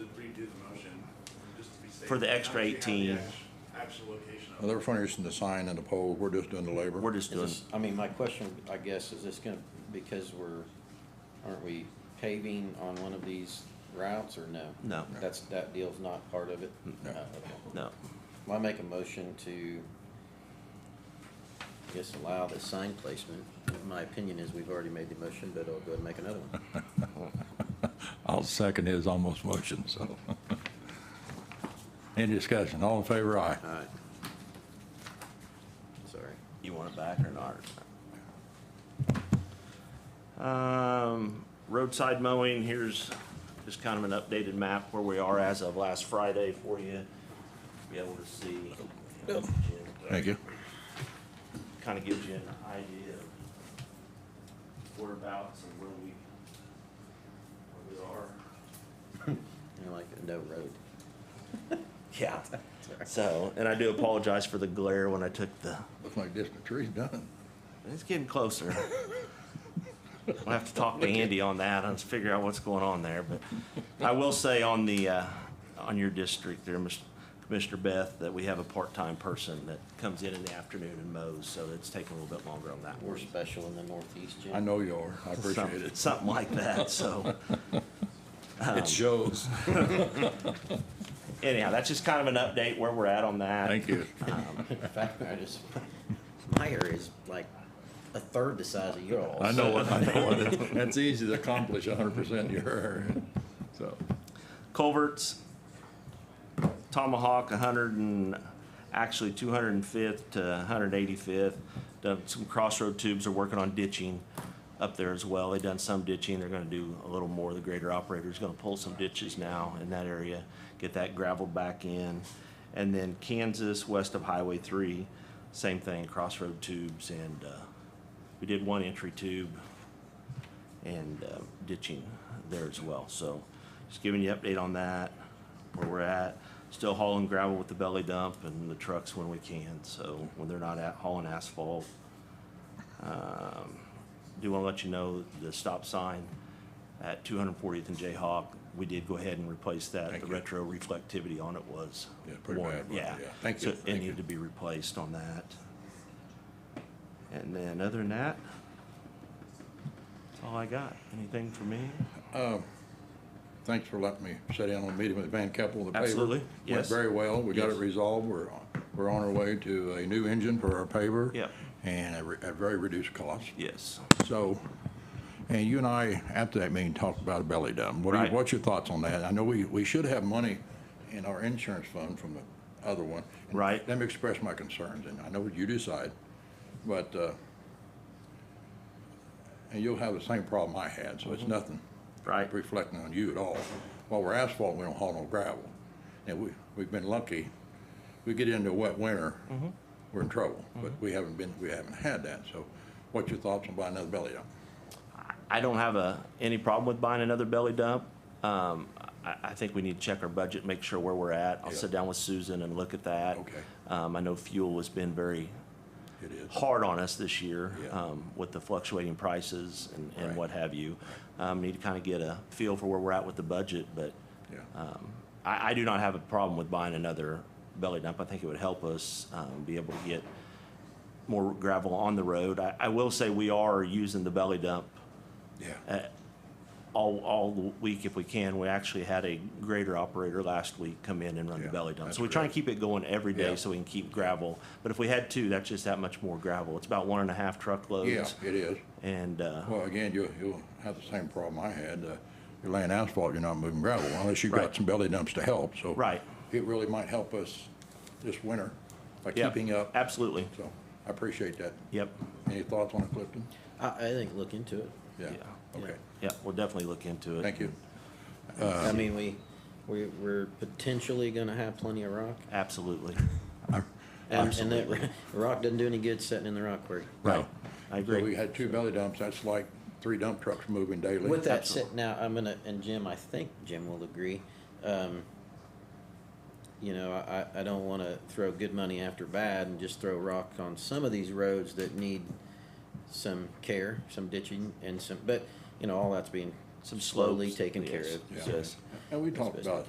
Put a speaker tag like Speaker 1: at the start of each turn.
Speaker 1: do the motion, just to be safe.
Speaker 2: For the extra
Speaker 1: How does she
Speaker 2: 18?
Speaker 1: have the act- Actual location
Speaker 3: Well,
Speaker 1: of it.
Speaker 3: They're furnishing the sign and the pole, we're just doing the labor.
Speaker 2: We're just
Speaker 4: Is
Speaker 2: doing,
Speaker 4: this, I mean, my question, I guess, is this gonna, because we're, aren't we paving on one of these routes or no?
Speaker 2: No.
Speaker 4: That's, that deal's not part of it? No. okay.
Speaker 2: no,
Speaker 4: Well, I make a motion to, I guess, allow the sign placement. My opinion is we've already made the motion, but I'll go ahead and make another one.
Speaker 3: I'll second his almost motion, so. Any discussion, all in favor, aye.
Speaker 4: All right. Sorry.
Speaker 2: you want it back or not? Um, roadside mowing, here's just kind of an updated map where we are as of last Friday for you. Be able to see.
Speaker 3: Thank you.
Speaker 2: Kind of gives you an idea of whereabouts and where we, where we are.
Speaker 4: I like no road.
Speaker 2: Yeah. So, and I do apologize for the glare when I took the,
Speaker 3: Looks like this, the tree's done.
Speaker 2: it's getting closer. I'll have to talk to Andy on that and figure out what's going on there, but I will say on the, uh, on your district there, Mis- Commissioner Beth, that we have a part-time person that comes in in the afternoon and mows, so it's taking a little bit longer on that.
Speaker 4: We're special in the Northeast, Jim.
Speaker 3: I know you are, I appreciate it.
Speaker 2: Something like that, so.
Speaker 3: It shows.
Speaker 2: Anyhow, that's just kind of an update where we're at on that. Um,
Speaker 3: Thank you.
Speaker 4: In fact, I just, my area is like a third the size of yours.
Speaker 3: I know, what- I know, what- that's easy to accomplish hundred percent in your area, so.
Speaker 2: culverts, Tomahawk, hundred and, actually two hundred and fifth to hundred and eighty-fifth. Done some crossroad tubes, are working on ditching up there as well. They've done some ditching, they're gonna do a little more. The grader operator's gonna pull some ditches now in that area, get that gravel back in. And then Kansas, west of Highway three, same thing, crossroad tubes and, uh, we did one entry tube and uh, ditching there as well. So just giving you update on that, where we're at. Still hauling gravel with the belly dump and the trucks when we can, so when they're not at hauling asphalt. Um, Do want to let you know the stop sign at 240th and Jayhawk, we did go ahead and replace that.
Speaker 3: Thank
Speaker 2: The
Speaker 3: you.
Speaker 2: retro reflectivity on it was.
Speaker 3: Yeah, pretty
Speaker 2: worn.
Speaker 3: bad, but
Speaker 2: Yeah.
Speaker 3: yeah. Thank you,
Speaker 2: So it
Speaker 3: thank you.
Speaker 2: needed to be replaced on that. And then other than that, that's all I got. Anything for me?
Speaker 3: Thanks for letting me sit in on the meeting with Van Keppel, the paver.
Speaker 2: Absolutely,
Speaker 3: Went
Speaker 2: yes.
Speaker 3: very well, we got it
Speaker 2: Yes.
Speaker 3: resolved, we're, we're on our way to a new engine for our paver.
Speaker 2: Yep.
Speaker 3: And a, re- a very reduced cost.
Speaker 2: Yes.
Speaker 3: So, and you and I, after that meeting, talked about a belly dump. What are,
Speaker 2: Right.
Speaker 3: you- what's your thoughts on that? I know we, we should have money in our insurance fund from the other one. And
Speaker 2: Right.
Speaker 3: Let me express my concerns, and I know you decide, but, uh, and you'll have the same problem I had, so
Speaker 2: Mm-hmm.
Speaker 3: it's nothing
Speaker 2: Right.
Speaker 3: reflecting on you at all. While we're asphalt, we don't haul no gravel. And we, we've been lucky. We get into a wet winter,
Speaker 2: Mm-hmm.
Speaker 3: we're in trouble, but we haven't been, we haven't had that. So what's your thoughts on buying another belly dump?
Speaker 2: I don't have a, any problem with buying another belly dump. Um, I, I think we need to check our budget, make sure where we're at. I'll
Speaker 3: Yeah.
Speaker 2: sit down with Susan and look at that.
Speaker 3: Okay.
Speaker 2: Um, I know fuel has been very
Speaker 3: It is.
Speaker 2: hard on us this year,
Speaker 3: Yeah.
Speaker 2: um, with the fluctuating prices and, and
Speaker 3: Right.
Speaker 2: what have you. Um, need to kind of get a feel for where we're at with the budget, but,
Speaker 3: Yeah,
Speaker 2: uh, I, I do not have a problem with buying another belly dump. I think it would help us um, be able to get more gravel on the road. I, I will say we are using the belly dump uh,
Speaker 3: yeah.
Speaker 2: all, all the week if we can. We actually had a grader operator last week come in and run the
Speaker 3: Yeah,
Speaker 2: belly dump.
Speaker 3: that's
Speaker 2: So we try and
Speaker 3: correct.
Speaker 2: keep it going every day
Speaker 3: Yeah.
Speaker 2: so we can keep gravel. But if we had two, that's just that much more gravel. It's about one and a half truckloads.
Speaker 3: Yeah, it is.
Speaker 2: And, uh,
Speaker 3: Well, again, you'll, you'll have the same problem I had. Uh, You're laying asphalt, you're not moving gravel unless you've
Speaker 2: Right.
Speaker 3: got some belly dumps to help, so.
Speaker 2: Right.
Speaker 3: It really might help us this winter by
Speaker 2: yeah,
Speaker 3: keeping up.
Speaker 2: Absolutely.
Speaker 3: So I appreciate that.
Speaker 2: Yep.
Speaker 3: Any thoughts on it, Clifton?
Speaker 4: I, I think look into it.
Speaker 3: Yeah,
Speaker 2: Yeah.
Speaker 3: okay.
Speaker 2: Yeah, we'll definitely look into it.
Speaker 3: Thank you.
Speaker 4: I mean, we, we, we're potentially gonna have plenty of rock.
Speaker 2: Absolutely.
Speaker 4: And, and that ro- rock doesn't do any good sitting in the rock quarry.
Speaker 2: Right. I
Speaker 3: So we
Speaker 2: agree.
Speaker 3: had two belly dumps, that's like three dump trucks moving daily.
Speaker 4: With that
Speaker 2: Absolutely.
Speaker 4: said, now, I'm gonna, and Jim, I think Jim will agree, um, you know, I, I- I don't wanna throw good money after bad and just throw rock on some of these roads that need some care, some ditching and some, but, you know, all that's being
Speaker 2: Some
Speaker 4: slowly
Speaker 2: slopes,
Speaker 4: taken care
Speaker 2: yes.
Speaker 4: of.
Speaker 3: Yeah.
Speaker 4: so-
Speaker 2: Yes.
Speaker 3: And we
Speaker 4: As
Speaker 3: talked
Speaker 4: best we
Speaker 3: about